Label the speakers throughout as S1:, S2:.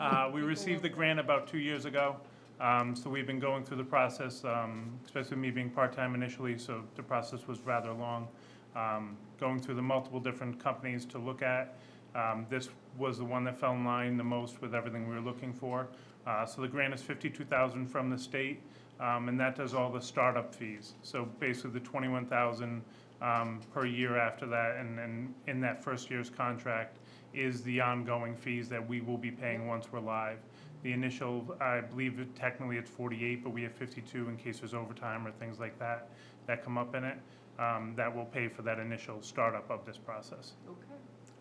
S1: Uh, We received the grant about two years ago, um, so we've been going through the process, um, especially me being part-time initially, so the process was rather long. Um, Going through the multiple different companies to look at. Um, This was the one that fell in line the most with everything we were looking for. Uh, So the grant is fifty-two thousand from the state, um, and that does all the startup fees. So basically, the twenty-one thousand um, per year after that, and then in that first year's contract, is the ongoing fees that we will be paying once we're live. The initial, I believe it- technically it's 48, but we have 52 in case there's overtime or things like that that come up in it, um, that will pay for that initial startup of this process.
S2: Okay.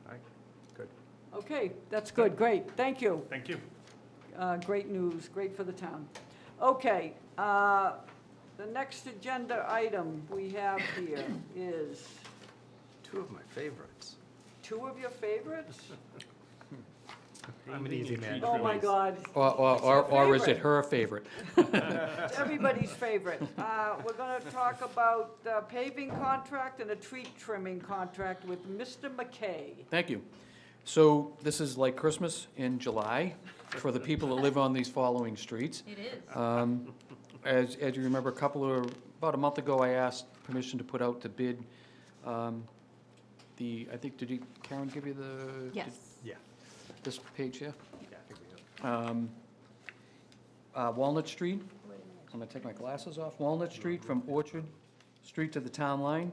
S3: All right, good.
S2: Okay, that's good, great, thank you.
S1: Thank you.
S2: Uh, Great news, great for the town. Okay, uh, the next agenda item we have here is
S3: Two of my favorites.
S2: two of your favorites?
S3: I'm an easy man.
S2: Oh, my God,
S4: Or, or,
S2: her
S4: or or is it
S2: favorite.
S4: her favorite?
S2: it's everybody's favorite. Uh, We're going to talk about uh, paving contract and a tree trimming contract with Mr. McKay.
S4: Thank you. So this is like Christmas in July for the people that live on these following streets.
S5: It is.
S4: Um, As, as you remember, a couple of, about a month ago, I asked permission to put out to bid um, the, I think, did you- Karen give you the?
S5: Yes.
S3: Yeah.
S4: This page here?
S3: yeah, I think we have-
S4: Um, uh, Walnut Street, I'm gonna take my glasses off, Walnut Street from Orchard Street to the town line,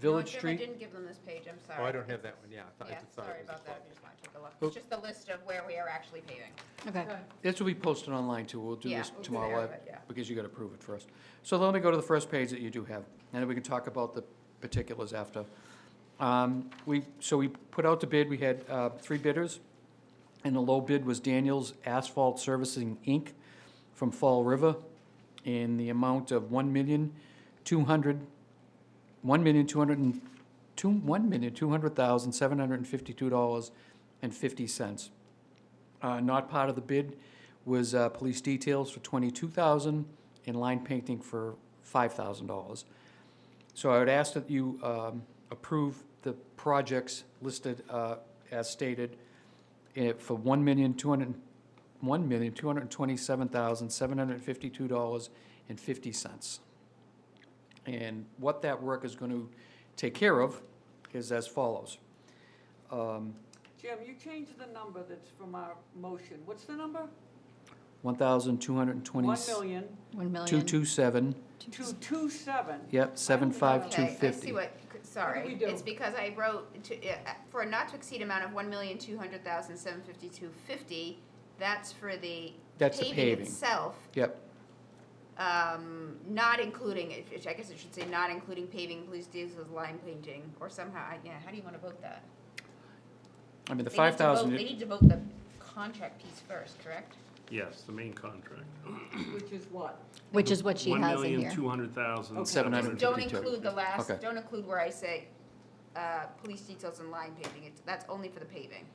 S4: Village
S5: No, Jim, I
S4: Street.
S5: didn't give them this page, I'm sorry.
S3: Oh, I don't have that one, yeah. I thought- I
S5: Yeah,
S3: just thought it
S5: sorry
S3: was a
S5: about that,
S3: club.
S5: I just want to take a look.
S4: Oh.
S5: It's just the list of where we are actually paving.
S6: Okay.
S4: This will be posted online too, we'll do
S5: Yeah,
S4: this
S5: we'll do that,
S4: tomorrow,
S5: but yeah.
S4: uh, because you gotta prove it first. So let me go to the first page that you do have, and then we can talk about the particulars after. Um, We, so we put out the bid, we had uh, three bidders, and the low bid was Daniels Asphalt Servicing, Inc. from Fall River, in the amount of one million, two hundred, one million, two hundred and, two, one million, two hundred thousand, seven hundred and fifty-two dollars and fifty cents. Uh, not part of the bid was, uh, police details for twenty-two thousand and line painting for five thousand dollars. So I would ask that you, um, approve the projects listed, uh, as stated eh, for one million, two hundred, one million, two hundred and twenty-seven thousand, seven hundred and fifty-two dollars and fifty cents. And what that work is gonna take care of is as follows. Um,
S2: Jim, you changed the number that's from our motion. What's the number?
S4: one thousand, two hundred and twenty.
S2: One million
S6: One million.
S4: Two two seven,
S2: two two seven.
S4: yep, seven five two
S5: Okay, I see
S4: fifty.
S5: what, c-
S2: we
S5: sorry,
S2: do?
S5: it's because I wrote to, yeah, uh, for a not to exceed amount of one million, two hundred thousand, seven fifty-two, fifty, that's for the
S4: That's the
S5: paving
S4: paving.
S5: itself,
S4: Yep,
S5: um, not including, it- it- I guess I should say not including paving, police diesels, line painting, or somehow, I- yeah, how do you want to vote that?
S4: I mean, the
S5: They need to
S4: five
S5: vote-
S4: thousand,
S5: They need to vote the contract piece first, correct?
S7: Yes, the main contract.
S2: Which is what?
S6: Which is what she has in here.
S2: Okay.
S7: 1,200,000.
S4: seven hundred
S5: Just
S4: and
S5: don't
S4: fifty-two.
S5: include the last,
S4: Okay.
S5: don't include where I say, uh, police details and line paving, it's, that's only for the paving.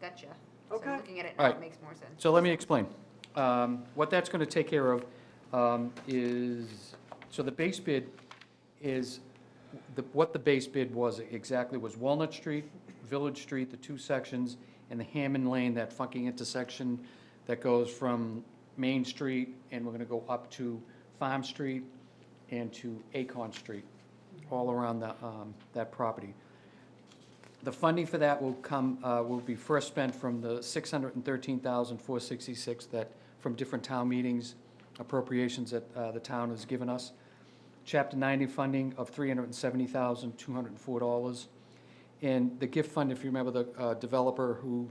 S5: Gotcha. So
S2: Okay.
S5: looking at it now,
S4: Alright.
S5: it makes more sense.
S4: So let me explain. Um, What that's going to take care of um, is, so the base bid is, the- what the base bid was exactly was Walnut Street, Village Street, the two sections, and the Hammond Lane, that funky intersection that goes from Main Street, and we're going to go up to Farm Street and to Acorn Street, all around the, um, that property. The funding for that will come, uh, will be first spent from the 613466 that, from different town meetings, appropriations that uh, the town has given us. Chapter 90 funding of $370,204. And the gift fund, if you remember the uh, developer who,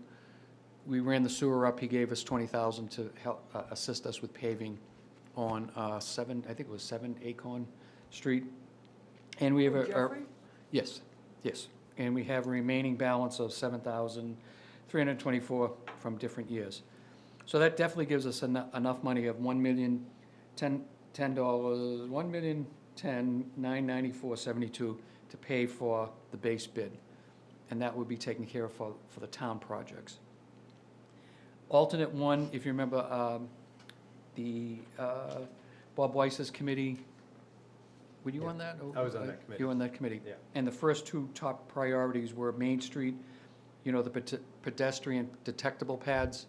S4: we ran the sewer up, he gave us 20000 to help, uh, assist us with paving on uh, 7, I think it was 7 Acorn Street. And we have a. a-
S2: Jeffrey?
S4: Yes, yes. And we have a remaining balance of 7,324 from different years. So that definitely gives us eno- enough money of 1 million, 10, dollars, 1 million, 10, 994, 72 to pay for the base bid. And that would be taken care of for, for the town projects. Alternate one, if you remember, um, the uh, Bob Weiss's committee, were you
S3: Yeah.
S4: on that?
S3: I was on that committee.
S4: You were on that committee?
S3: Yeah.
S4: And the first two top priorities were Main Street you know, the pete- pedestrian detectable pads.